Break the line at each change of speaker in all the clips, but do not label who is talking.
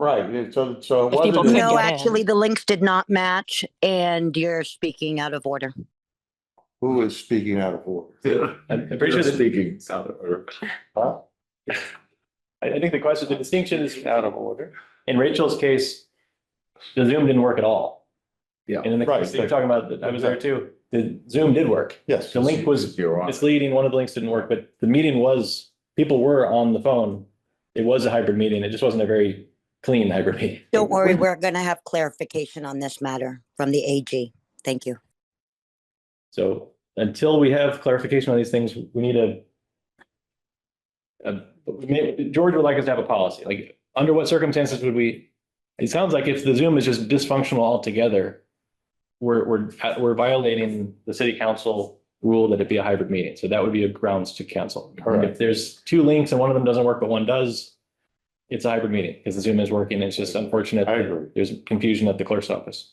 Right, so, so it
If people
wasn't.
couldn't
No,
get
actually,
in.
the links did not match and you're speaking out of order.
Who is speaking out of order?
I'm I'm pretty sure, the-
Speaking out of order.
Huh?
I, I think the question, the distinction is, uh, in Rachel's case, the Zoom didn't work at all.
Yeah.
And in the
Right,
case that you're talking about, I was there too, the Zoom did work.
Yes.
The link was
You're on.
misleading, one of the links didn't work, but the meeting was, people were on the phone. It was a hybrid meeting, it just wasn't a very clean hybrid meeting.
Don't worry, we're going to have clarification on this matter from the AG. Thank you.
So until we have clarification on these things, we need a. a- may- George would like us to have a policy, like, under what circumstances would we? It sounds like if the Zoom is just dysfunctional altogether. We're, we're, we're violating the city council rule that it be a hybrid meeting, so that would be a grounds to cancel.
Correct.
If there's two links and one of them doesn't work, but one does. It's a hybrid meeting, because the Zoom is working, it's just unfortunate.
I
that
agree.
There's confusion at the clerk's office.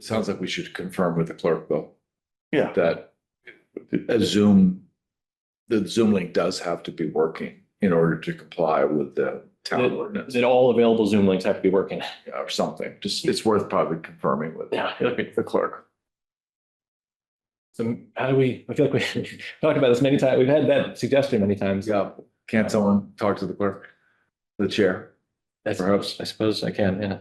Sounds like we should confirm with the clerk though,
Yeah,
that a Zoom, the Zoom link does have to be working in order to comply with the town
That-
ordinance
That all available Zoom links have to be working.
or something. Just, it's worth probably confirming with
Yeah,
the clerk.
So how do we, I feel like we talked about this many times. We've had that suggestion many times.
Yeah, can't someone talk to the clerk, the chair?
I suppose, I suppose I can,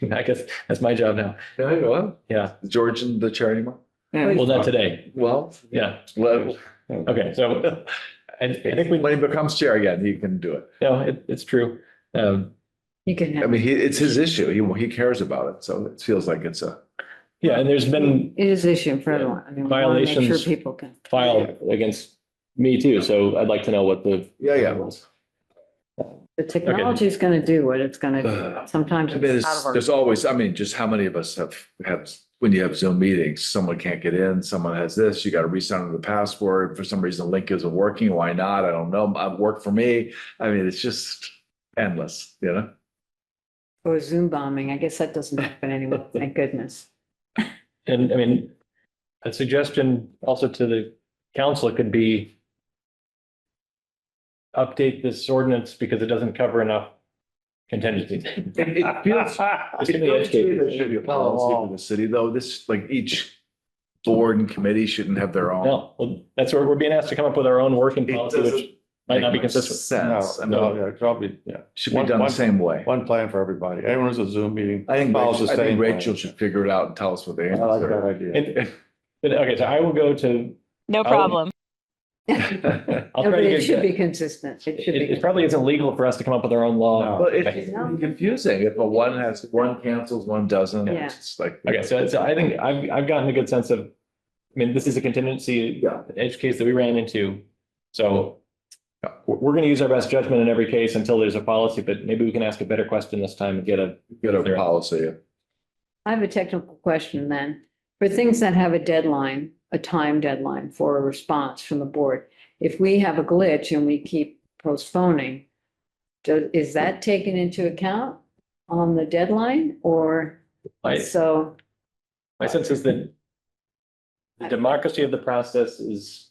yeah. I guess that's my job now.
Yeah, you know,
Yeah.
George and the chair anymore?
Well, not today.
Well,
Yeah.
let-
Okay. So I, I think we,
when he becomes chair again, he can do it.
no, it, it's true. Um,
You can
I
have,
mean, he, it's his issue. He, he cares about it. So it feels like it's a,
yeah, and there's
it
been
is issue for everyone. I mean, we wanna make sure
Violations.
people can.
filed against me too. So I'd like to know what the.
yeah, yeah.
The technology is gonna do what it's gonna
Uh,
Uh,
do. Sometimes
I mean,
it's out
there's,
of our.
there's always, I mean, just how many of us have, have, when you have Zoom meetings, someone can't get in, someone has this, you gotta reset the password. For some reason, the link isn't working. Why not? I don't know. It worked for me. I mean, it's just endless, you know?
Or Zoom bombing. I guess that doesn't happen anymore. Thank goodness.
And I mean, a suggestion also to the council could be update this ordinance because it doesn't cover enough contingencies.
It feels-
Just give me an education.
There should be a policy for The city though, this, like each board and committee shouldn't have their own.
No, well, that's where we're being asked to come up with our own working
It
policy, which
doesn't
might not be
make much
consistent.
no,
Sense. I
no,
mean,
yeah, it's probably, yeah,
should be
One-
done the
one-
same way.
one plan for everybody. Everyone's a Zoom meeting.
I think,
follows
Rachel-
the
I
same
think
plan.
Rachel should figure it out and tell us what the
I like
answer
that idea.
And, but, okay, so I will go to,
No
I'll-
problem.
is.
I'll
No, but
try to
it
get,
should be
it,
consistent. It should
it
be.
probably isn't legal for us to come up with our own law.
No.
Well, it's confusing if a one has, one cancels, one doesn't, it's just like.
Okay, so, so I think I've, I've gotten a good sense of, I mean, this is a contingency
Yeah.
edge case that we ran into. So we're, we're gonna use our best judgment in every case until there's a policy, but maybe we can ask a better question this time and get a,
Get a policy.
I have a technical question then. For things that have a deadline, a time deadline for a response from the board, if we have a glitch and we keep postponing, do- is that taken into account on the deadline or
my,
so?
my sense is that the democracy of the process is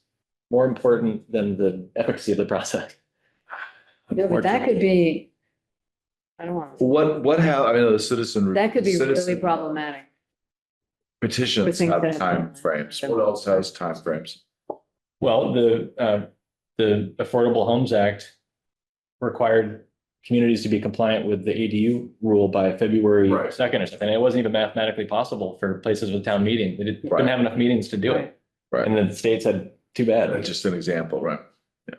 more important than the efficacy of the process.
No, but that could be, I don't want,
What, what have, I mean, the citizen.
that could be really
citizen
problematic. for
Petitions
things
have
that have been-
timeframes. What else has timeframes?
Well, the, uh, the Affordable Homes Act required communities to be compliant with the ADU rule by February
Right.
second or something. It wasn't even mathematically possible for places with town meeting. They didn't didn't
Right.
have enough meetings to do it.
Right.
And then the state said, too bad.
That's just an example, right?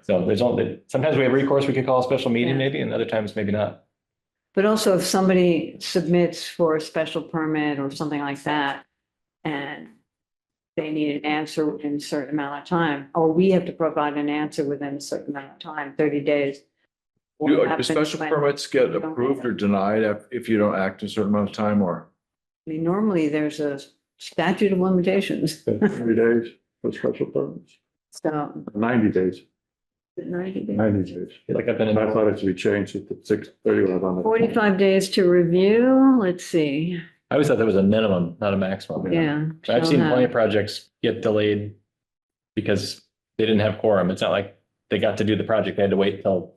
So there's only, sometimes we have recourse. We could call a special meeting
Yeah.
maybe, and other times maybe not.
But also if somebody submits for a special permit or something like that and they need an answer within a certain amount of time, or we have to provide an answer within a certain amount of time, thirty days. what
Do do
happens
special
when-
permits get
don't have
approved or
them?
denied if, if you don't act in a certain amount of time or?
I mean, normally there's a statute of limitations,
Three days for special permits,
so
ninety days,
ninety days.
ninety days.
I feel Like I've been,
And I
in-
thought it should be changed at the six thirty one on the.
Forty-five days to review, let's see,
I always thought that was a minimum, not a maximum.
yeah.
So I've seen
shall
plenty
have-
of projects get delayed because they didn't have quorum. It's not like they got to do the project. They had to wait till